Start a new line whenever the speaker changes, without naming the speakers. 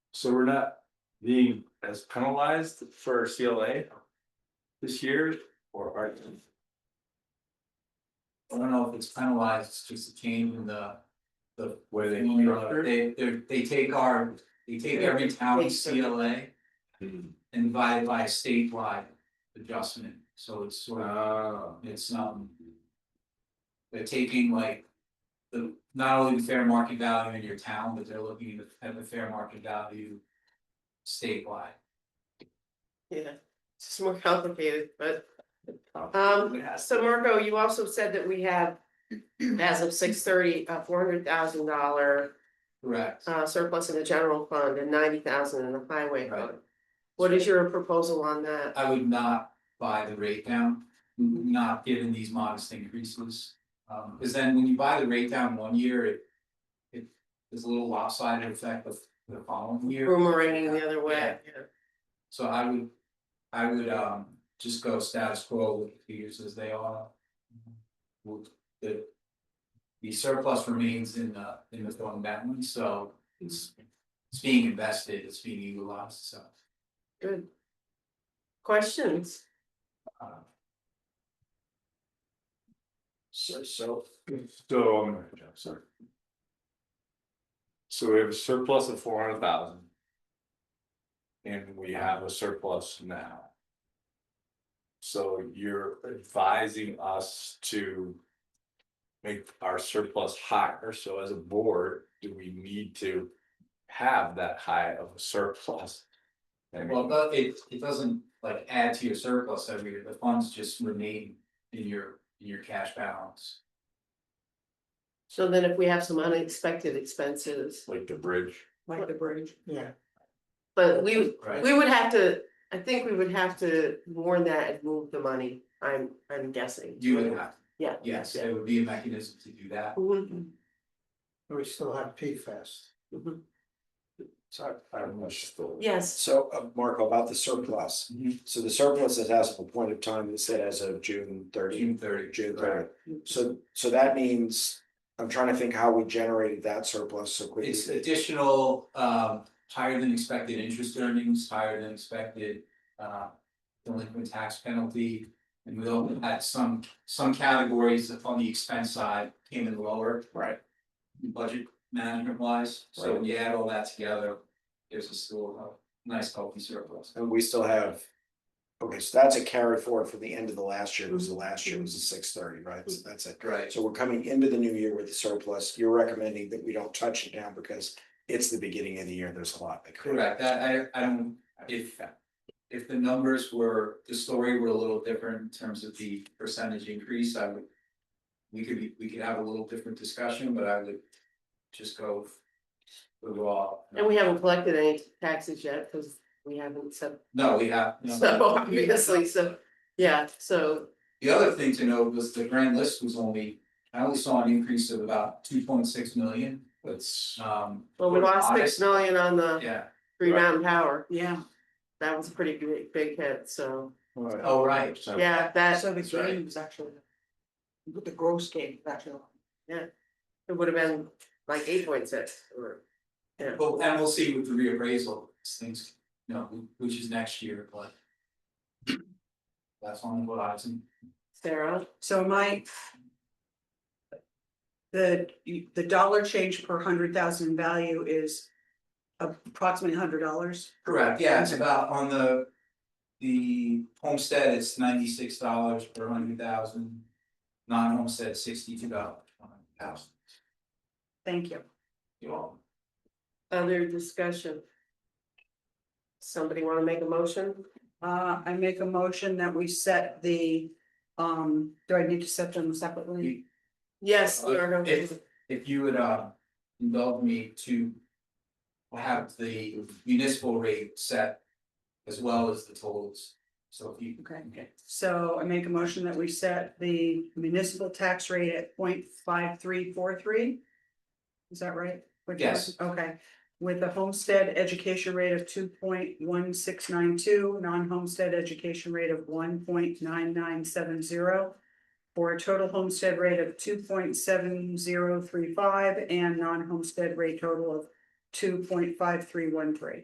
So we're not being as penalized for CLA. This year or are.
I don't know if it's penalized, it's just a change in the, the.
Where they
formula.
structured.
They, they, they take our, they take every town's CLA and divide it by statewide adjustment, so it's sort of,
Ah,
it's, um. They're taking like, the, not only the fair market value in your town, but they're looking at the- at the fair market value statewide.
Yeah, it's just more complicated, but,
Ah.
um, so Marco, you also said that we have. As of six thirty, a four hundred thousand dollar
Correct.
uh surplus in the general fund and ninety thousand in the highway
Right.
fund. What is your proposal on that?
I would not buy the rate down, not given these modest increases. Um, cause then when you buy the rate down one year, it. It is a little lopsided effect of the following year,
Boomeranging the other way,
so I would. I would um just go status quo with the figures as they are. Would- the. The surplus remains in the in the fund balance, so it's. It's being invested, it's being utilized, so.
good. Questions?
uh,
so so. So I'm gonna, jump, sorry. So we have a surplus of four hundred thousand. And we have a surplus now. So you're advising us to. Make our surplus higher, so as a board, do we need to have that high of a surplus? I
Well,
mean,
but it it doesn't like add to your surplus every year, the funds just remain in your in your cash balance.
So then if we have some unexpected expenses.
like the bridge.
Like
the bridge. Yeah.
But we
Right.
We would have to, I think we would have to warn that and move the money, I'm, I'm guessing.
You would have,
Yeah.
yes, there would be a mechanism to do that.
Mhm.
We still have PFAS.
So I I don't know, it's still-
Yes,
So, uh, Marco, about the surplus,
Mm-hmm.
so the surplus is as of a point of time, it said as of June thirty,
June thirty.
June
Right.
thirty. So, so that means, I'm trying to think how we generated that surplus so quickly.
It's additional um higher than expected interest earnings, higher than expected uh delinquent tax penalty. And we also had some some categories on the expense side came in lower.
Right.
Budget management wise, so when you add all that together, there's a still a nice healthy surplus.
And we still have, okay, so that's a carry forward from the end of the last year, because the last year was the six thirty, right? So that's it.
Right.
So we're coming into the new year with a surplus. You're recommending that we don't touch it now because it's the beginning of the year. There's a lot that could.
Correct, that I I don't, if if the numbers were, the story were a little different in terms of the percentage increase, I would. We could be, we could have a little different discussion, but I would just go with raw.
and we haven't collected any taxes yet, because we haven't said,
No, we have, no.
so obviously, so, yeah, so.
The other thing to note was the grand list was only, I only saw an increase of about two point six million,
That's.
um.
Well, we lost
honest-
six million on the
Yeah,
Green Mountain Power. Yeah. That was a pretty big, big hit, so,
oh, right,
So-
yeah, that,
So the
That's right.
gain was actually. The gross gain was actually.
it would have been like eight point six or. Yeah,
well, and we'll see with the reappraisal, things, you know, which is next year, but. That's on the horizon.
Sarah,
So my. The, the dollar change per hundred thousand value is approximately hundred dollars.
Correct, yeah, it's about on the. The homestead, it's ninety six dollars per hundred thousand. Non-homestead, sixty two dollars per hundred thousand.
Thank you.
You all,
other discussion? Somebody wanna make a motion?
Uh, I make a motion that we set the, um, do I need to set them separately?
Yes,
Uh,
Margo.
if- if you would uh indulge me to. Have the municipal rate set as well as the totals, so if you.
Okay. So I make a motion that we set the municipal tax rate at 0.5343. Is that right? What you-
Yes.
Okay, with the homestead education rate of two point one six nine two, non-homestead education rate of one point nine nine seven zero. For a total homestead rate of two point seven zero three five and non-homestead rate total of two point five three one three.